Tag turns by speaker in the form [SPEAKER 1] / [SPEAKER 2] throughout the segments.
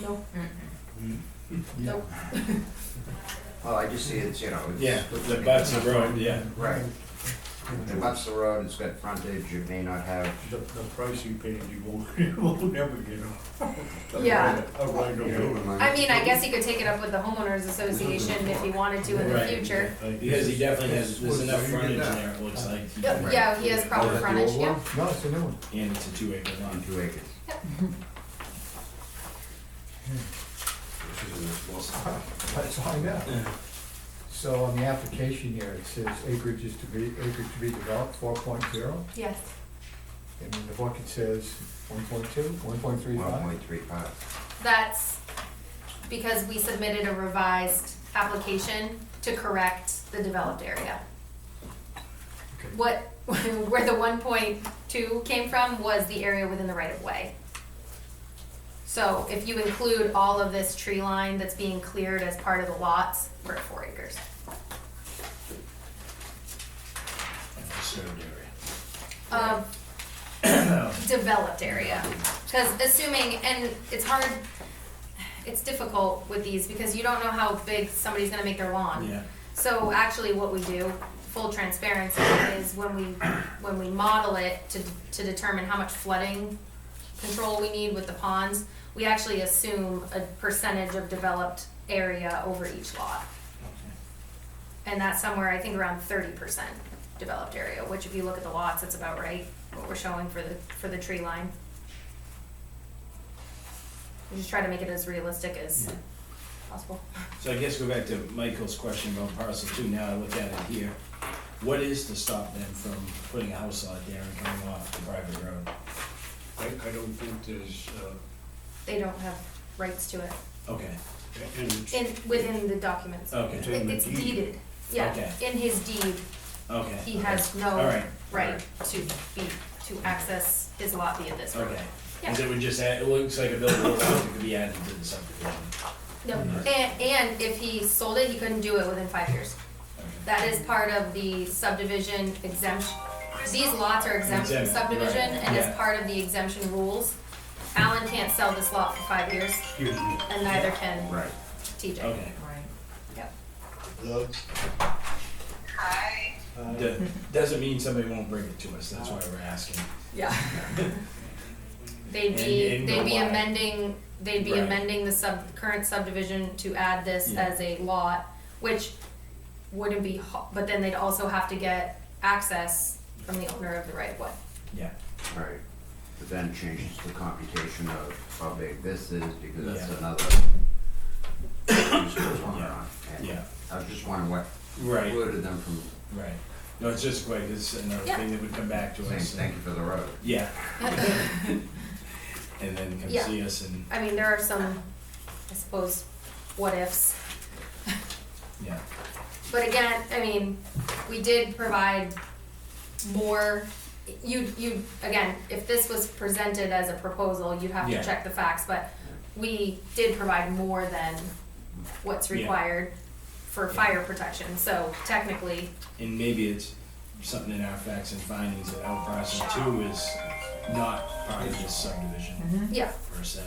[SPEAKER 1] No.
[SPEAKER 2] Nope.
[SPEAKER 3] Well, I just see it's, you know. it's-
[SPEAKER 4] Yeah, the butts of road, yeah.
[SPEAKER 3] Right. It butts the road, it's got frontage, it may not have,
[SPEAKER 5] The, the price you paid, you won't, you won't never get a. a
[SPEAKER 2] Yeah.
[SPEAKER 5] right- A right
[SPEAKER 3] you
[SPEAKER 5] away.
[SPEAKER 3] know.
[SPEAKER 2] I mean, I guess he could take it up with the homeowners association if he wanted to in the
[SPEAKER 4] Right.
[SPEAKER 2] future.
[SPEAKER 5] Like,
[SPEAKER 4] Because he definitely has, there's enough
[SPEAKER 5] Well,
[SPEAKER 4] frontage
[SPEAKER 5] you did
[SPEAKER 4] in
[SPEAKER 5] that.
[SPEAKER 4] there, it looks like. he
[SPEAKER 2] Yep,
[SPEAKER 4] can-
[SPEAKER 2] Yeah, he has proper frontage, yeah.
[SPEAKER 1] No, it's a new one.
[SPEAKER 4] And it's a two acre lot.
[SPEAKER 3] On two acres.
[SPEAKER 1] That's all I got. So on the application here, it says acreage is to be, acreage to be developed, four point zero,
[SPEAKER 2] Yes.
[SPEAKER 1] and in the book it says one point two, one point three
[SPEAKER 3] One
[SPEAKER 1] five.
[SPEAKER 3] point three five.
[SPEAKER 2] That's because we submitted a revised application to correct the developed area.
[SPEAKER 1] Okay.
[SPEAKER 2] What, where the one point two came from was the area within the right of way. So if you include all of this tree line that's being cleared as part of the lots, we're at four acres.
[SPEAKER 4] Conserved area.
[SPEAKER 2] of developed area. Because assuming, and it's hard, it's difficult with these because you don't know how big somebody's gonna make their lawn.
[SPEAKER 4] Yeah.
[SPEAKER 2] So actually what we do, full transparency, is when we, when we model it to, to determine how much flooding control we need with the ponds, we actually assume a percentage of developed area over each lot. And that's somewhere, I think, around thirty percent developed area, which if you look at the lots, it's about right, what we're showing for the, for the tree line. We just try to make it as realistic as possible.
[SPEAKER 4] So I guess go back to Michael's question about parcel two, now I look at it here. What is to stop them from putting a house out there and coming off the private road?
[SPEAKER 5] I, I don't think there's, uh,
[SPEAKER 2] They don't have rights to it,
[SPEAKER 4] Okay,
[SPEAKER 5] and it's,
[SPEAKER 2] in, within the documents.
[SPEAKER 4] okay,
[SPEAKER 5] in the
[SPEAKER 2] It's
[SPEAKER 5] deed.
[SPEAKER 2] deeded, yeah,
[SPEAKER 4] Okay.
[SPEAKER 2] in his deed,
[SPEAKER 4] okay.
[SPEAKER 2] he has
[SPEAKER 4] All
[SPEAKER 2] no
[SPEAKER 4] right.
[SPEAKER 2] right to be, to access his lot via this road.
[SPEAKER 4] Okay, because it would just add, it looks like a buildable lot that could be added to the subdivision.
[SPEAKER 2] No,
[SPEAKER 4] Mm-hmm.
[SPEAKER 2] and, and if he sold it, he couldn't do it within five years.
[SPEAKER 4] Okay.
[SPEAKER 2] That is part of the subdivision exemption. These lots are exempt from
[SPEAKER 4] Exempt, right,
[SPEAKER 2] subdivision and is
[SPEAKER 4] yeah.
[SPEAKER 2] part of the exemption rules. Alan can't sell this lot for five years
[SPEAKER 5] excuse me,
[SPEAKER 2] and neither can
[SPEAKER 3] Right.
[SPEAKER 2] TJ.
[SPEAKER 4] Okay,
[SPEAKER 5] the,
[SPEAKER 4] Do- doesn't mean somebody won't bring it to us, that's why we're asking.
[SPEAKER 2] Yeah. They'd be,
[SPEAKER 4] And- and
[SPEAKER 2] they'd be
[SPEAKER 4] go wide.
[SPEAKER 2] amending, they'd be
[SPEAKER 4] Right.
[SPEAKER 2] amending the sub, current subdivision to add this
[SPEAKER 4] Yeah.
[SPEAKER 2] as a lot, which wouldn't be, ho- but then they'd also have to get access from the owner of the right of way.
[SPEAKER 4] Yeah,
[SPEAKER 3] Right. But then changes the computation of how big this is, because that's
[SPEAKER 4] Yeah.
[SPEAKER 3] another. use goes on and on. And
[SPEAKER 4] yeah,
[SPEAKER 3] I was just wondering what
[SPEAKER 4] right,
[SPEAKER 3] precluded them from
[SPEAKER 4] right. No, it's just quick, it's another
[SPEAKER 2] Yeah.
[SPEAKER 4] thing that would come back to us.
[SPEAKER 3] saying
[SPEAKER 4] and-
[SPEAKER 3] thank you for the road.
[SPEAKER 4] Yeah. And then come
[SPEAKER 2] Yeah.
[SPEAKER 4] see us and,
[SPEAKER 2] I mean, there are some, I suppose, what ifs.
[SPEAKER 4] yeah,
[SPEAKER 2] But again, I mean, we did provide more, you, you, again, if this was presented as a proposal, you'd have
[SPEAKER 4] Yeah.
[SPEAKER 2] to check the facts, but we did provide more than what's
[SPEAKER 4] Yeah.
[SPEAKER 2] required for
[SPEAKER 4] Yeah.
[SPEAKER 2] fire protection, so technically,
[SPEAKER 4] and maybe it's something in our facts and findings that our parcel two is not part of this subdivision
[SPEAKER 2] yeah,
[SPEAKER 4] per se.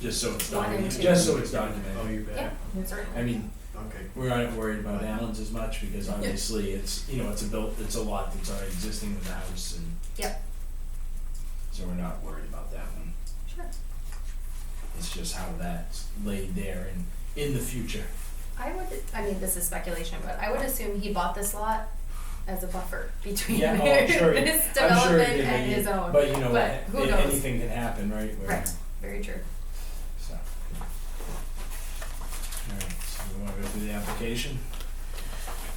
[SPEAKER 4] Just so it's
[SPEAKER 2] One and
[SPEAKER 4] documented,
[SPEAKER 2] two.
[SPEAKER 4] just so it's
[SPEAKER 5] oh,
[SPEAKER 4] documented.
[SPEAKER 5] you
[SPEAKER 2] yeah,
[SPEAKER 5] bet,
[SPEAKER 2] certainly.
[SPEAKER 4] I mean,
[SPEAKER 5] okay.
[SPEAKER 4] we're not worried about Allen's as much because obviously it's, you know, it's a built, it's a lot that's already existing with the house and.
[SPEAKER 2] Yep.
[SPEAKER 4] So we're not worried about that one.
[SPEAKER 2] Sure.
[SPEAKER 4] It's just how that's laid there and in the future.
[SPEAKER 2] I would, I mean, this is speculation, but I would assume he bought this lot as a buffer between
[SPEAKER 4] Yeah, oh, I'm sure.
[SPEAKER 2] his
[SPEAKER 4] I'm sure
[SPEAKER 2] development
[SPEAKER 4] it did,
[SPEAKER 2] and his own.
[SPEAKER 4] But you know,
[SPEAKER 2] But who
[SPEAKER 4] a-
[SPEAKER 2] knows?
[SPEAKER 4] anything can happen, right? Where-
[SPEAKER 2] Right, very true.
[SPEAKER 4] So. All right, so we want to go through the application.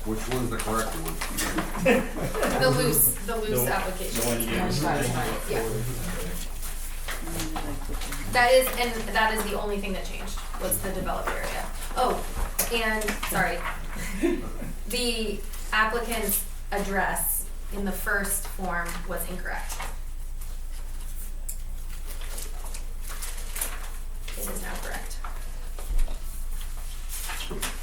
[SPEAKER 6] Which one's the correct one?
[SPEAKER 2] The loose, the loose
[SPEAKER 4] The-
[SPEAKER 2] application.
[SPEAKER 4] the one you gave us.
[SPEAKER 2] Yeah, that is, and that is the only thing that changed, was the developed area. Oh, and, sorry. The applicant's address in the first form was incorrect. It is now correct.